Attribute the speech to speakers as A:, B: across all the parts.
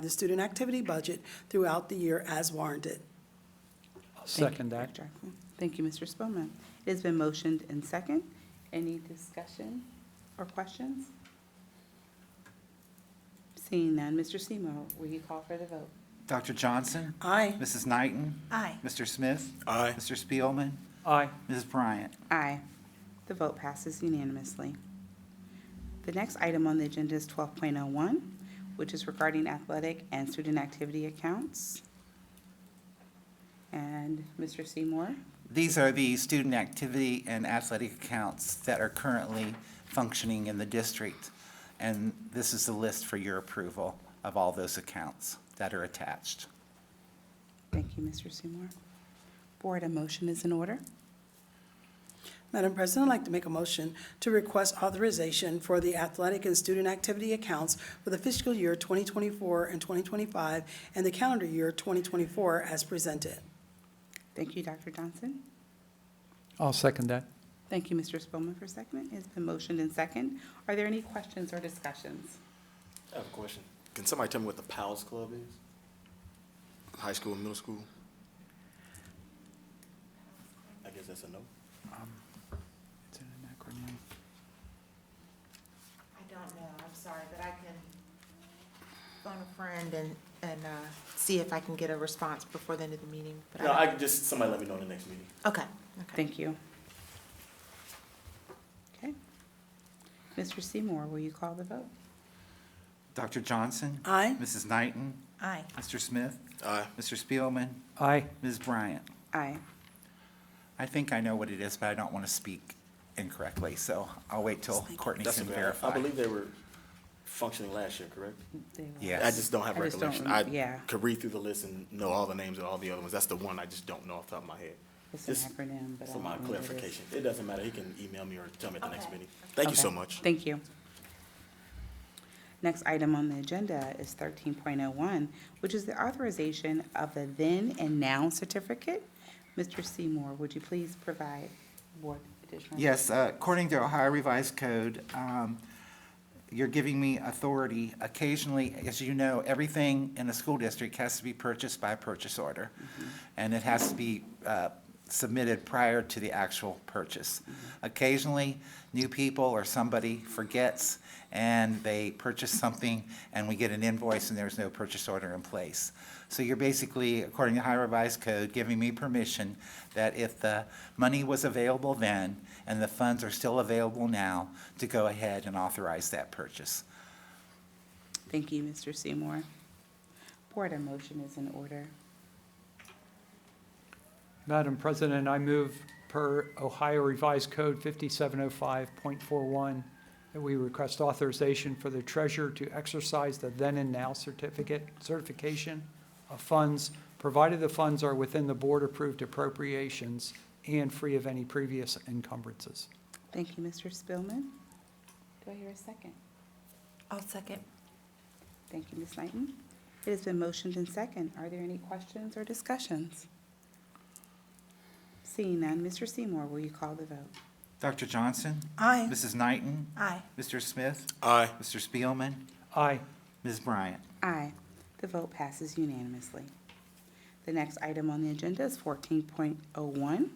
A: the student activity budget throughout the year as warranted.
B: I'll
C: Thank you,
B: second that.
C: Dr. Ackley. Thank you, Mr. Spelman. It has been motioned and second. Any discussion or questions? Seeing none, Mr. Seymour, will you call for the vote?
D: Dr. Johnson?
A: Aye.
D: Mrs. Knighton?
C: Aye.
D: Mr. Smith?
E: Aye.
D: Mr. Spielman?
B: Aye,
D: Mrs. Bryant?
C: Aye. The vote passes unanimously. The next item on the agenda is 12.01, which is regarding athletic and student activity accounts. And Mr. Seymour?
D: These are the student activity and athletic accounts that are currently functioning in the district. And this is the list for your approval of all those accounts that are attached.
C: Thank you, Mr. Seymour. Board, a motion is in order.
A: Madam President, I'd like to make a motion to request authorization for the athletic and student activity accounts for the fiscal year 2024 and 2025 and the calendar year 2024 as presented.
C: Thank you, Dr. Johnson.
B: I'll second that.
C: Thank you, Mr. Spelman, for seconding. It's been motioned and second. Are there any questions or discussions?
E: I have a question. Can somebody tell me what the Pals Club is? High school and middle school? I guess that's a no.
B: It's an acronym.
F: I don't know, I'm sorry, but I can phone a friend and, and uh, see if I can get a response before the end of the meeting. but
E: No,
F: don't-
E: I can just, somebody let me know in the next meeting.
F: Okay, okay.
C: Thank you. Okay. Mr. Seymour, will you call the vote?
D: Dr. Johnson?
A: Aye.
D: Mrs. Knighton?
F: Aye.
D: Mr. Smith?
E: Aye.
D: Mr. Spielman?
B: Aye,
D: Ms. Bryant?
C: Aye.
D: I think I know what it is, but I don't want to speak incorrectly, so I'll wait till Courtney
E: That's
D: can
E: okay. I-
D: verify.
E: I believe they were functioning last year, correct?
C: They will.
D: Yeah.
E: I just don't have
C: I just don't
E: recollection.
C: rem-
E: I
C: yeah.
E: could read through the list and know all the names of all the other ones. That's the one I just don't know off the top of my head.
C: It's an
E: Just
C: acronym, but I
E: For
C: don't
E: my
C: know what it is.
E: clarification. It doesn't matter. He can email me or tell me at the next
F: Okay.
E: meeting. Thank you so
C: Okay.
E: much.
C: Thank you. Next item on the agenda is thirteen point oh one, which is the authorization of the then and now certificate. Mr. Seymour, would you please provide board additional?
D: Yes, uh, according to Ohio Revised Code, um, you're giving me authority. Occasionally, as you know, everything in a school district has to be purchased by purchase order. And it has to be uh, submitted prior to the actual purchase. Occasionally, new people or somebody forgets and they purchase something and we get an invoice and there's no purchase order in place. So you're basically, according to Ohio Revised Code, giving me permission that if the money was available then and the funds are still available now, to go ahead and authorize that purchase.
C: Thank you, Mr. Seymour. Board, a motion is in order.
B: Madam President, I move per Ohio Revised Code 5705.41 that we request authorization for the treasurer to exercise the then and now certificate, certification of funds, provided the funds are within the board-approved appropriations and free of any previous encumbrances.
C: Thank you, Mr. Spillman. Do I hear a second?
F: I'll second.
C: Thank you, Ms. Knighton. It has been motioned and second. Are there any questions or discussions? Seeing none, Mr. Seymour, will you call the vote?
D: Dr. Johnson?
A: Aye.
D: Mrs. Knighton?
F: Aye.
D: Mr. Smith?
E: Aye.
D: Mr. Spielman?
B: Aye,
D: Ms. Bryant?
C: Aye. The vote passes unanimously. The next item on the agenda is fourteen point oh one,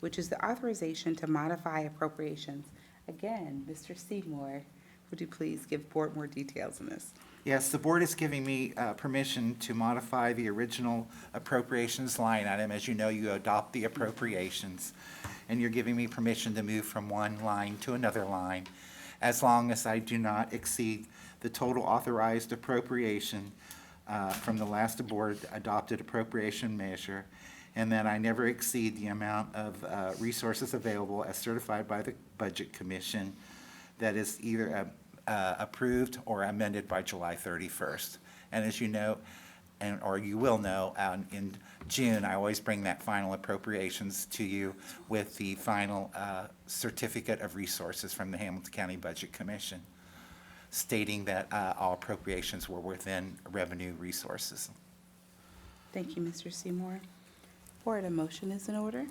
C: which is the authorization to modify appropriations. Again, Mr. Seymour, would you please give board more details on this?
D: Yes, the board is giving me uh, permission to modify the original appropriations line item. As you know, you adopt the appropriations, and you're giving me permission to move from one line to another line as long as I do not exceed the total authorized appropriation uh, from the last board adopted appropriation measure, and that I never exceed the amount of uh, resources available as certified by the Budget Commission that is either uh, uh, approved or amended by July 31st. And as you know, and, or you will know, um, in June, I always bring that final appropriations to you with the final uh, certificate of resources from the Hamilton County Budget Commission stating that uh, all appropriations were within revenue resources.
C: Thank you, Mr. Seymour. Board, a motion is in order?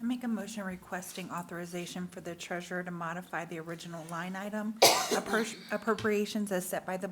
G: I make a motion requesting authorization for the treasurer to modify the original line item appro- appropriations as set by the